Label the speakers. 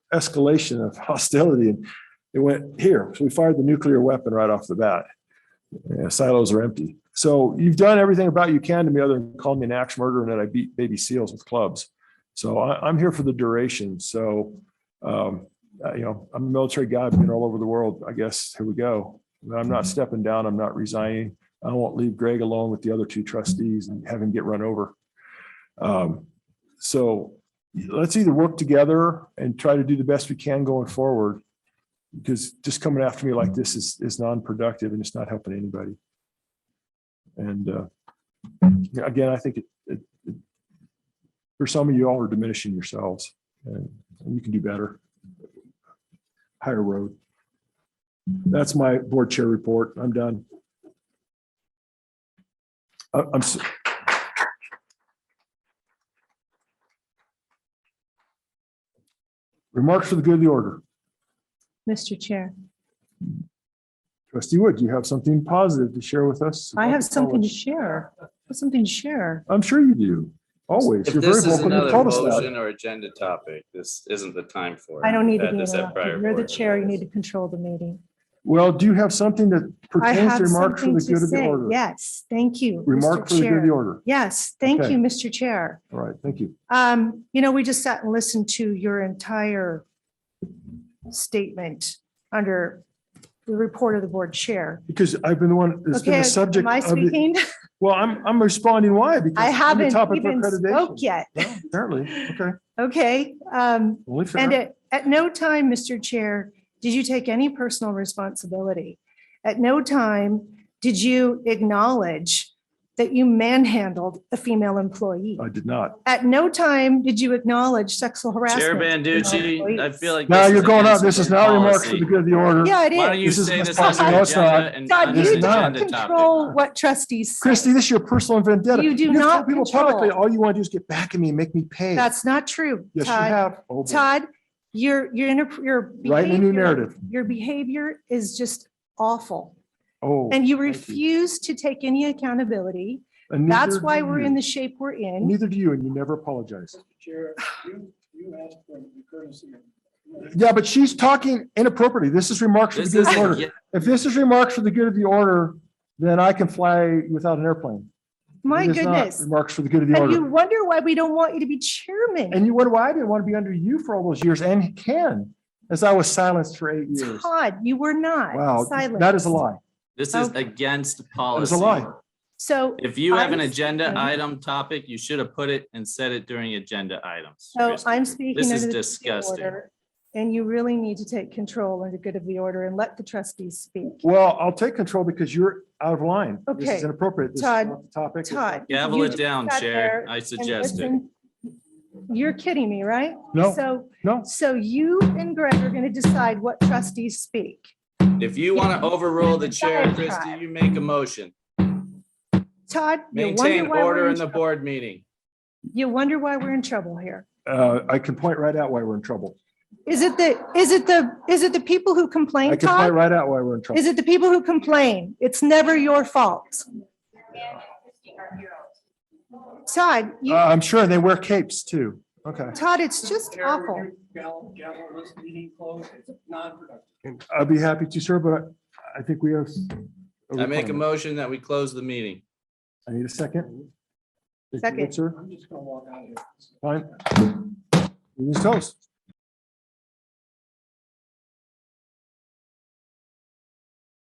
Speaker 1: escalation of hostility and it went here. So we fired the nuclear weapon right off the bat. Yeah, silos are empty. So you've done everything about you can to me other than call me an axe murderer and that I beat baby seals with clubs. So I, I'm here for the duration. So, um, uh, you know, I'm a military guy, I've been all over the world. I guess, here we go. But I'm not stepping down. I'm not resigning. I won't leave Greg alone with the other two trustees and have him get run over. Um, so let's either work together and try to do the best we can going forward. Because just coming after me like this is, is non-productive and it's not helping anybody. And, uh, yeah, again, I think it, it, it- for some of you all are diminishing yourselves and you can do better. Higher road. That's my board chair report. I'm done. I- I'm, s- remarks for the good of the order.
Speaker 2: Mr. Chair,
Speaker 1: Trustee Wood, do you have something positive to share with us?
Speaker 2: I
Speaker 1: about
Speaker 2: have
Speaker 1: the
Speaker 2: something to
Speaker 1: college?
Speaker 2: share, I have something to share.
Speaker 1: I'm sure you do. Always.
Speaker 3: If
Speaker 1: You're very
Speaker 3: this is
Speaker 1: welcome to
Speaker 3: another
Speaker 1: tell us that.
Speaker 3: motion or agenda topic, this isn't the time for. it.
Speaker 2: I don't need to
Speaker 3: We've
Speaker 2: be
Speaker 3: had this at prior
Speaker 2: interrupted. You're the
Speaker 3: boards.
Speaker 2: chair, you need to control the meeting.
Speaker 1: Well, do you have something that
Speaker 2: I
Speaker 1: pertains
Speaker 2: have
Speaker 1: to remarks for
Speaker 2: something
Speaker 1: the
Speaker 2: to
Speaker 1: good of the
Speaker 2: say.
Speaker 1: order?
Speaker 2: Yes, thank you.
Speaker 1: Remark
Speaker 2: Mr.
Speaker 1: for the good of
Speaker 2: Chair.
Speaker 1: the order.
Speaker 2: Yes, thank
Speaker 1: Okay.
Speaker 2: you, Mr. Chair.
Speaker 1: All right, thank you.
Speaker 2: Um, you know, we just sat and listened to your entire statement under the report of the board chair.
Speaker 1: Because I've been the one that's been
Speaker 2: Okay,
Speaker 1: the subject
Speaker 2: am I
Speaker 1: of the,
Speaker 2: speaking?
Speaker 1: well, I'm, I'm responding why? Because
Speaker 2: I
Speaker 1: I'm the
Speaker 2: haven't
Speaker 1: topic for
Speaker 2: even spoke
Speaker 1: accreditation.
Speaker 2: yet.
Speaker 1: Well, Apparently, okay.
Speaker 2: Okay, um,
Speaker 1: Only
Speaker 2: And
Speaker 1: fair.
Speaker 2: at, at no time, Mr. Chair, did you take any personal responsibility? At no time did you acknowledge that you manhandled a female employee?
Speaker 1: I did not.
Speaker 2: At no time did you acknowledge sexual harassment?
Speaker 3: Chair
Speaker 2: of
Speaker 3: Banducci, I
Speaker 2: employees.
Speaker 3: feel like.
Speaker 1: Now
Speaker 3: this
Speaker 1: you're
Speaker 3: is
Speaker 1: going out.
Speaker 3: against
Speaker 1: This is
Speaker 3: your
Speaker 1: not remarks for
Speaker 3: policy.
Speaker 1: the good of the order.
Speaker 2: Yeah,
Speaker 3: Why don't
Speaker 2: it is.
Speaker 3: you
Speaker 1: This is
Speaker 3: say
Speaker 1: against
Speaker 3: this on
Speaker 2: policy.
Speaker 3: the
Speaker 1: No, it's not.
Speaker 3: agenda and
Speaker 2: God,
Speaker 3: under
Speaker 2: you
Speaker 3: the
Speaker 1: is not.
Speaker 2: don't
Speaker 3: agenda topic?
Speaker 2: control what trustees say.
Speaker 1: Christie, this is your personal vendetta.
Speaker 2: You do
Speaker 1: You've told
Speaker 2: not
Speaker 1: People publicly,
Speaker 2: control.
Speaker 1: all you want to do is get back at me and make me pay.
Speaker 2: That's not true,
Speaker 1: Yes, you
Speaker 2: Todd.
Speaker 1: have. Oh, boy.
Speaker 2: Todd, your, your, inter- your.
Speaker 1: Write in a new
Speaker 2: behavior-
Speaker 1: narrative.
Speaker 2: Your behavior is just awful.
Speaker 1: Oh.
Speaker 2: And you
Speaker 1: thank
Speaker 2: refuse to take any accountability.
Speaker 1: and
Speaker 2: That's
Speaker 1: neither
Speaker 2: why
Speaker 1: do
Speaker 2: we're
Speaker 1: you.
Speaker 2: in the shape we're in.
Speaker 1: Neither do you, and you never apologize.
Speaker 4: Mr. Chair, you, you asked for the courtesy. of-
Speaker 1: Yeah, but she's talking inappropriately. This is remarks for the
Speaker 3: This
Speaker 1: good of the
Speaker 3: isn't,
Speaker 1: order.
Speaker 3: yeah,
Speaker 1: If this is remarks for the good of the order, then I can fly without an airplane.
Speaker 2: My
Speaker 1: It is not
Speaker 2: goodness.
Speaker 1: Remarks for the good of the
Speaker 2: And you
Speaker 1: order.
Speaker 2: wonder why we don't want you to be chairman.
Speaker 1: And you wonder why I didn't want to be under you for all those years and can, as I was silenced for eight years.
Speaker 2: Todd, you were not.
Speaker 1: Wow,
Speaker 2: silent.
Speaker 1: that is a lie.
Speaker 3: this is
Speaker 2: Okay.
Speaker 3: against
Speaker 1: That is
Speaker 3: policy.
Speaker 1: a lie.
Speaker 2: So,
Speaker 3: If you have an
Speaker 2: I'm
Speaker 3: agenda
Speaker 2: speaking.
Speaker 3: item topic, you should have put it and said it during agenda items.
Speaker 2: so
Speaker 3: Christie.
Speaker 2: I'm speaking.
Speaker 3: This
Speaker 2: under
Speaker 3: is
Speaker 2: the good
Speaker 3: disgusting.
Speaker 2: order, And you really need to take control under good of the order and let the trustees speak.
Speaker 1: Well, I'll take control because you're out of line. This is
Speaker 2: Okay.
Speaker 1: inappropriate. This is
Speaker 2: Todd,
Speaker 1: not the topic.
Speaker 2: Todd.
Speaker 3: Gavel
Speaker 2: you
Speaker 3: it down,
Speaker 2: sat
Speaker 3: Chair.
Speaker 2: there
Speaker 3: I
Speaker 2: and
Speaker 3: suggest it.
Speaker 2: listened. You're kidding me, right?
Speaker 1: No,
Speaker 2: So,
Speaker 1: no.
Speaker 2: so you and Greg are going to decide what trustees speak.
Speaker 3: If you want to overrule the chair,
Speaker 2: Diatribe.
Speaker 3: Christie, you make a motion.
Speaker 2: Todd, you wonder
Speaker 3: Maintain
Speaker 2: why
Speaker 3: order
Speaker 2: we're,
Speaker 3: in
Speaker 2: in-
Speaker 3: the board meeting.
Speaker 2: you wonder why we're in trouble here.
Speaker 1: Uh, I can point right out why we're in trouble.
Speaker 2: Is it the, is it the, is it the people
Speaker 1: I
Speaker 2: who complain,
Speaker 1: can point
Speaker 2: Todd?
Speaker 1: right out why we're in trouble.
Speaker 2: Is it the people who complain? It's never your fault. Todd,
Speaker 1: Uh,
Speaker 2: you,
Speaker 1: I'm sure they wear capes too. Okay.
Speaker 2: Todd, it's just
Speaker 4: Chair, would
Speaker 2: awful.
Speaker 4: you Gavel, gavel this meeting closed, it's non-productive.
Speaker 1: I'd be happy to, sir, but I think we have.
Speaker 3: I make a motion that we close the meeting.
Speaker 1: I need a second.
Speaker 2: Second.
Speaker 1: Sir,
Speaker 4: I'm just gonna walk out of here.
Speaker 1: fine. Meeting's toast.